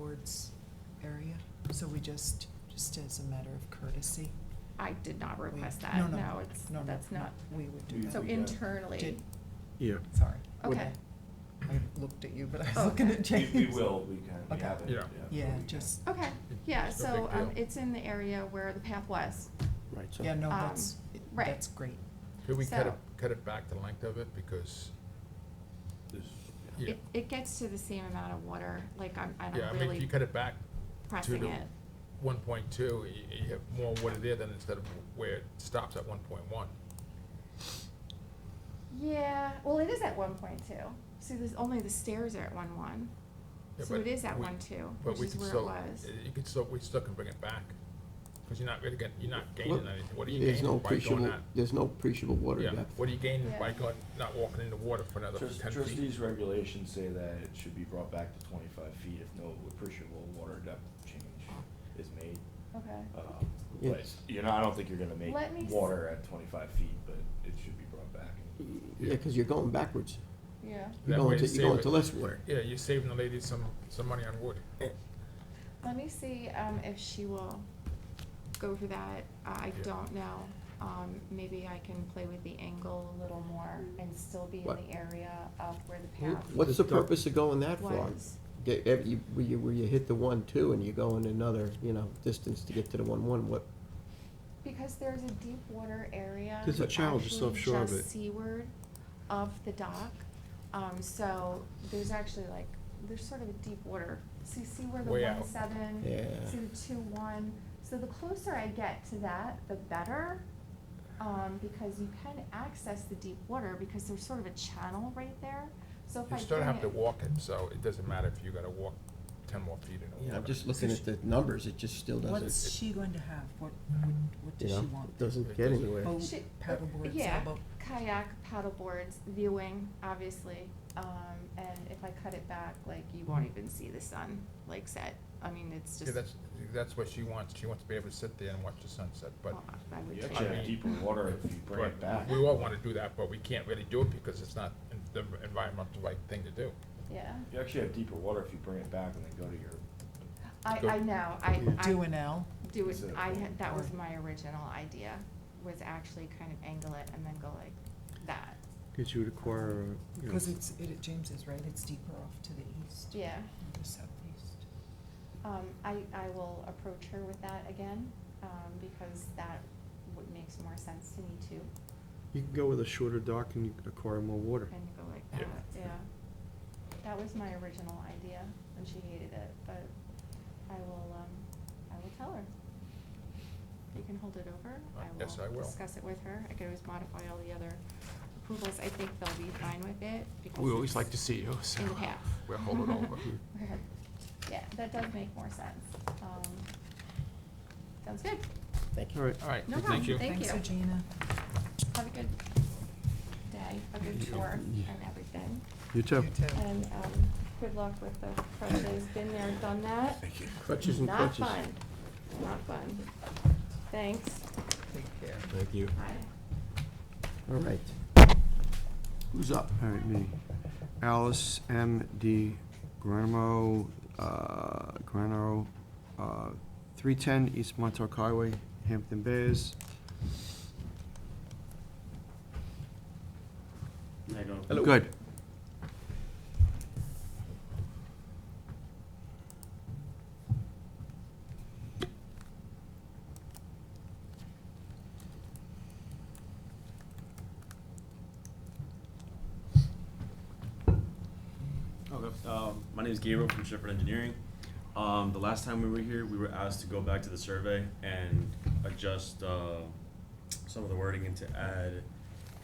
Edwards area, so we just, just as a matter of courtesy. I did not we- request no, that, no, no, it's, no, no, that's no, not, We would do We- that. so uh, got- internally, Did- Yeah, Sorry. okay, Oh, I looked at you, but I was looking Okay. at We, James. we will, we can, we Okay. have it, yeah. Yeah. Yeah, we can. just, okay, yeah, It's no so, big um, deal. it's in the area where the path was, Right, so. yeah, no, Um, that's, right. that's great. Could we cut it, So- cut it back the length of it, because, This- yeah, it, it gets to the same amount of water, like, I'm, I'm yeah, I mean, if you really cut it back pressing the- it, one point two, you, you have more water there than instead of where it stops at one point one. yeah, well, it is at one point two, see, there's, only the stairs are at one one, Yeah, so it but is at we- one two, But which we is can where it still, was, you could still, we still can bring it back, because you're not really getting, you're not gaining Well, anything, what are you There's gaining no by going appreciable, not? there's no appreciable water Yeah, depth. what are you gaining by Yeah. going, not walking in the water for another Trust- ten feet? Trustees' regulations say that it should be brought back to twenty-five feet if no appreciable water depth change is made. okay. Um, But, Yes. you know, I don't think you're gonna make Let me s- water at twenty-five feet, but it should be brought back. Yeah, because you're going backwards. Yeah, You're That way going to, it's you're going safer. to less water. Yeah, you're saving the lady some, some money on wood. let me see, um, if she will go for that, I Yeah. don't know. Um, maybe I can play with the angle a little more and still be in What? the area of where the path What's the purpose of going that far? was. Get, ev- you, where you, where you hit the one, two, and you're going another, you know, distance to get to the one, one, what, Because there's a deep water area. There's a that's channel actually just offshore of just it. seaward of the dock, um, so there's actually like, there's sort of a deep water. See, see where the Way one out. seven? Yeah. See the two one? So the closer I get to that, the better, um, because you can access the deep water, because there's sort of a channel right there. So if I You still bring have to it- walk it, so it doesn't matter if you gotta walk ten more feet in the you water. know, just looking at the numbers, it just still What's doesn't, she going to have? What, what- what you does know, she it want? Oh. doesn't It get doesn't- anywhere. Boat, She- uh, paddleboard, yeah, sailboat? kayak, paddleboards, viewing, obviously. Um, and if I cut it back, like you won't even see the sun, like set. I mean, it's Yeah, just. that's, that's what she wants, she wants to be able to sit there and watch the sunset, but well, I would You take actually it. have deeper water if you bring it back. But we all wanna do that, but we can't really do it because it's not en- the environmental right thing to do. Yeah, You actually have deeper water if you bring it back and then go to your, I, Go- I know, I, Do I an L? do it, Is it a I, pool? had- that was my original idea, was actually kind of angle it and then go like that. Because you would acquire, a, you know, Because it's, it, James is right, it's deeper off to the east. Yeah. and The southeast. Um, I, I will approach her with that again, um, because that would, makes more sense to me too, you can go with a shorter dock and you can acquire more water. and go like Yeah. that, yeah. That was my original idea, and she hated it, but I will, um, I will tell her. You can hold it over, Uh, I yes, I will will. discuss it with her, I could always modify all the other approvals, I think they'll be fine with it, because. We always it's like to see you, so In the past. we'll hold it over. We're- Yeah, that does make more sense, um, sounds good, Thank you. All right. All right, No problem. thank you. Thank Thanks, you. Regina. have a good day, a good tour and everything. You too. You too. And um, good luck with the crutches, been there, done that. Crutches and crutches. Not fun, not fun. Thanks. Take care. Thank you. Bye. All right. Who's up? All right, me. Alice M. D. Granamo, uh, Granaro, uh, three ten East Montauk Highway, Hampton Bears. Hello. Good. Okay. Um, my name is Gabriel from Shepherd Engineering. Um, the last time we were here, we were asked to go back to the survey and adjust uh, some of the wording and to add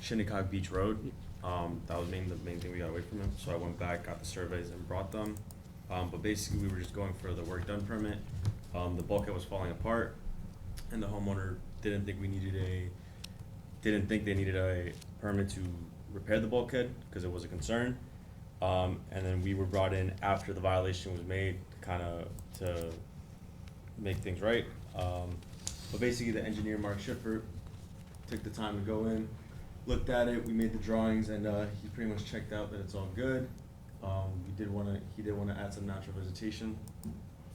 Shinnecock Beach Road. Um, that was main, the main thing we got away from him. So I went back, got the surveys, and brought them. Um, but basically, we were just going for the work done permit. Um, the bulkhead was falling apart, and the homeowner didn't think we needed a didn't think they needed a permit to repair the bulkhead because it was a concern. Um, and then we were brought in after the violation was made, kind of to make things right. Um, but basically, the engineer Mark Schiffer took the time to go in, looked at it. We made the drawings, and uh, he pretty much checked out that it's all good. Um, we did want to he did want to add some natural vegetation